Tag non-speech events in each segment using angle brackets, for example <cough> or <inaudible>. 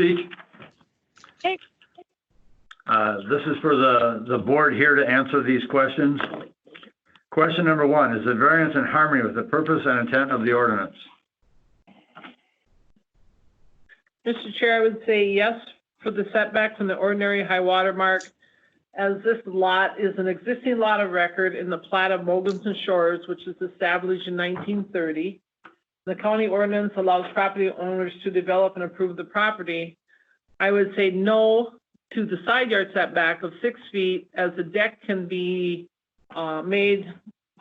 speak? Hey. Uh, This is for the, the board here to answer these questions. Question number one, is the variance in harmony with the purpose and intent of the ordinance? Mr. Chair, I would say yes for the setback from the ordinary high water mark, as this lot is an existing lot of record in the plat of Mogensen Shores, which was established in 1930. The county ordinance allows property owners to develop and approve the property. I would say no to the side yard setback of six feet, as the deck can be uh, made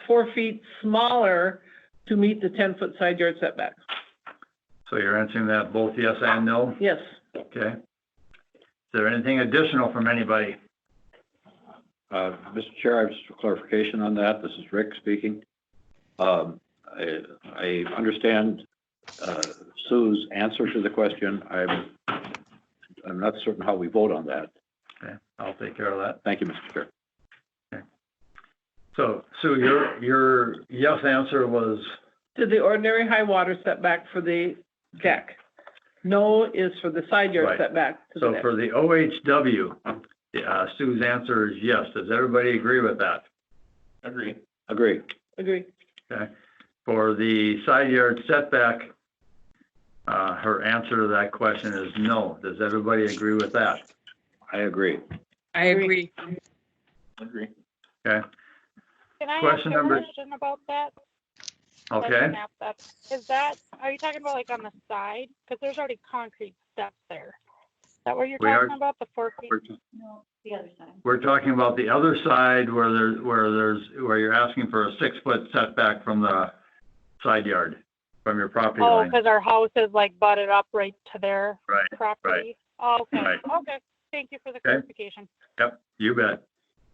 four feet smaller to meet the 10-foot side yard setback. So you're answering that both yes and no, Yes. okay? Is there anything additional from anybody? Uh, Mr. Chair, I have just for clarification on that. This is Rick speaking. Um, I I understand uh, Sue's answer to the question. I'm I'm not certain how we vote on that. Okay, I'll take care of that. Thank you, Mr. Chair. So Sue, your, your yes answer was, to the ordinary high water setback for the deck. No is for the side yard Right. setback to the so deck. for the OHW, uh, Sue's answer is yes. Does everybody agree with that? Agree. Agree. Agree. For the side yard setback, uh, her answer to that question is no. Does everybody agree with that? I agree. I agree. agree. Agree. Can I ask Question a number- question about that? If I Okay, can ask that. Is that, are you talking about like on the side? Because there's already concrete steps there. Is that what you're We are- talking about, the four feet? No, the other side. we're talking about the other side where there's, where there's, where you're asking for a six-foot setback from the side yard, from your property Oh, line. because our house is like butted up right to their Right, property? Oh, Okay, Right. okay. Thank you for the clarification. Yep, you bet.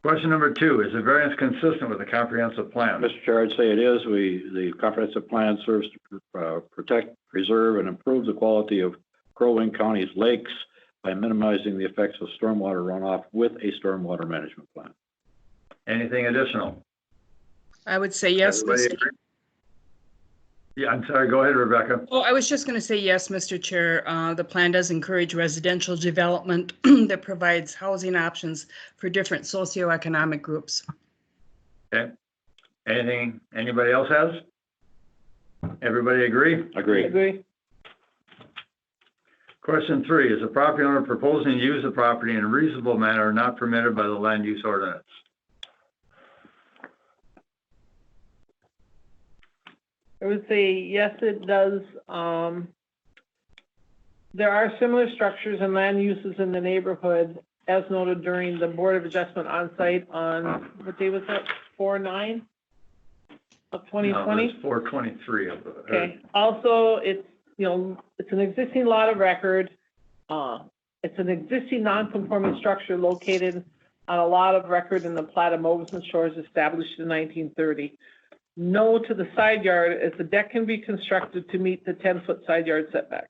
Question number two, is the variance consistent with the comprehensive plan? Mr. Chair, I'd say it is. We, the comprehensive plan serves to uh, protect, preserve, and improve the quality of Crow Wing County's lakes by minimizing the effects of stormwater runoff with a stormwater management plan. Anything additional? I would say yes, Everybody Mr. agree? Yeah, I'm sorry, go ahead, Rebecca. Oh, I was just going to say yes, Mr. Chair. Uh, The plan does encourage residential development <clears throat> that provides housing options for different socioeconomic groups. Anything anybody else has? Everybody agree? Agree. Agree. Question three, is the property owner proposing to use the property in a reasonable manner not permitted by the land use ordinance? I would say, yes, it does. Um, there are similar structures and land uses in the neighborhood as noted during the Board of Adjustment onsite on, what day was that? Four nine of twenty twenty? Four twenty-three Uh, of the. Okay, also, it's, you know, it's an existing lot of record. Uh, It's an existing non-conforming structure located on a lot of record in the plat of Moguls Shores established in nineteen thirty. No to the side yard, as the deck can be constructed to meet the ten-foot side yard setback.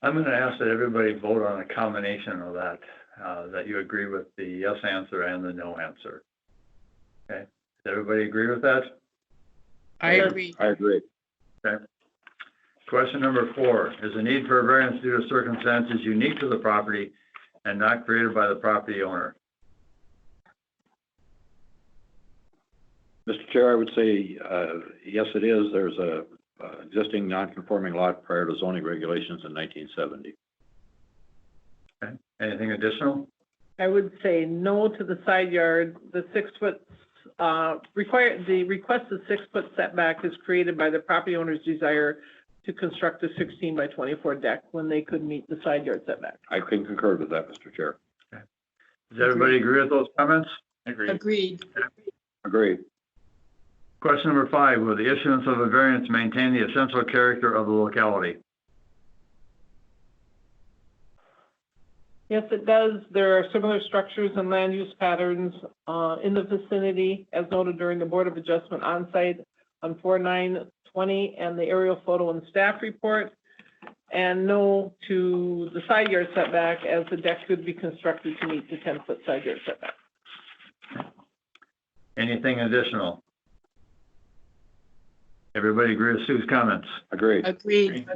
I'm gonna ask that everybody vote on a combination of that, uh, that you agree with the yes answer and the no answer. Okay, does everybody agree with that? I agree. I agree. Question number four, is the need for a variance due to circumstances unique to the property and not created by the property owner? Mr. Chair, I would say, uh, yes, it is. There's a uh, existing non-conforming lot prior to zoning regulations in 1970. Anything additional? I would say no to the side yard, the six-foot, uh, require, the requested six-foot setback is created by the property owner's desire to construct a sixteen by twenty-four deck when they could meet the side yard setback. I can concur with that, Mr. Chair. Does everybody agree with those comments? Agreed. Agree. Question number five, will the issuance of a variance maintain the essential character of the locality? Yes, it does. There are similar structures and land use patterns uh, in the vicinity, as noted during the Board of Adjustment onsite on 4920 and the aerial photo and staff report. And no to the side yard setback, as the deck could be constructed to meet the 10-foot side yard setback. Anything additional? Everybody agree with Sue's comments? Agreed. Agreed.